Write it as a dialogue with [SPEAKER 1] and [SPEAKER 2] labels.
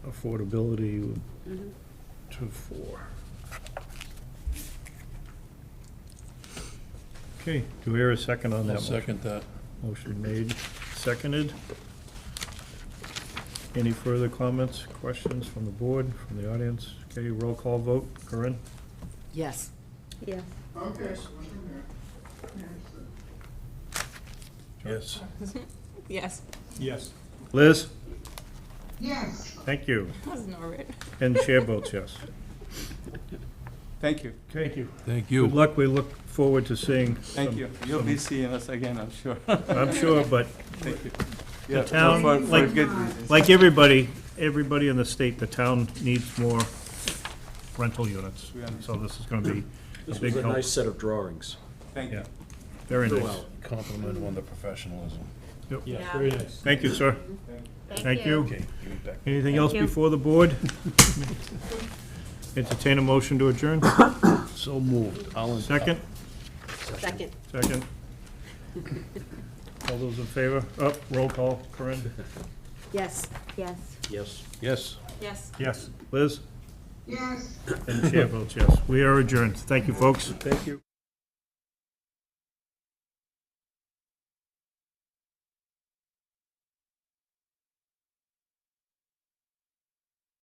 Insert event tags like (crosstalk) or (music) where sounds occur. [SPEAKER 1] affordability to four. Okay, do we hear a second on that?
[SPEAKER 2] I'll
[SPEAKER 1] motion?
[SPEAKER 2] second that.
[SPEAKER 1] Motion made, seconded. Any further comments, questions from the board, from the audience? Okay, roll call vote, Corinne?
[SPEAKER 3] Yes.
[SPEAKER 4] Yes.
[SPEAKER 5] Okay, so we're in there.
[SPEAKER 2] Yes.
[SPEAKER 6] Yes,
[SPEAKER 1] Yes. Liz?
[SPEAKER 5] Yes,
[SPEAKER 1] Thank you.
[SPEAKER 6] that's Norbert.
[SPEAKER 1] And chair votes yes.
[SPEAKER 7] Thank you,
[SPEAKER 1] Thank you.
[SPEAKER 2] Thank
[SPEAKER 1] Good
[SPEAKER 2] you.
[SPEAKER 1] luck, we look forward to seeing.
[SPEAKER 7] thank
[SPEAKER 1] some-
[SPEAKER 7] you. You'll be seeing us again, I'm sure. (laughs)
[SPEAKER 1] I'm sure, but
[SPEAKER 7] Thank you. Yeah,
[SPEAKER 1] town,
[SPEAKER 7] for- for
[SPEAKER 1] like-
[SPEAKER 7] good reasons.
[SPEAKER 1] like everybody, everybody in the state, the town needs more rental units.
[SPEAKER 7] We understand.
[SPEAKER 1] So this is gonna be a big
[SPEAKER 8] It was a
[SPEAKER 1] help.
[SPEAKER 8] nice set of drawings.
[SPEAKER 7] Thank
[SPEAKER 1] Yeah,
[SPEAKER 7] you.
[SPEAKER 1] very nice.
[SPEAKER 8] Well,
[SPEAKER 2] Compliment on the professionalism.
[SPEAKER 1] Yeah, very nice. Thank you, sir. Thank you.
[SPEAKER 2] Okay, give it back.
[SPEAKER 1] Anything else
[SPEAKER 4] Thank you.
[SPEAKER 1] before the board? Entertain a motion to adjourn.
[SPEAKER 2] So moved. All in-
[SPEAKER 1] Second,
[SPEAKER 3] Second.
[SPEAKER 1] second. All those in favor? Up, roll call. Corinne?
[SPEAKER 3] Yes.
[SPEAKER 4] Yes.
[SPEAKER 8] yes.
[SPEAKER 2] Yes.
[SPEAKER 6] Yes.
[SPEAKER 1] Yes. Liz?
[SPEAKER 5] yes.
[SPEAKER 1] And the chair votes yes. We are adjourned. Thank you, folks.
[SPEAKER 8] Thank you.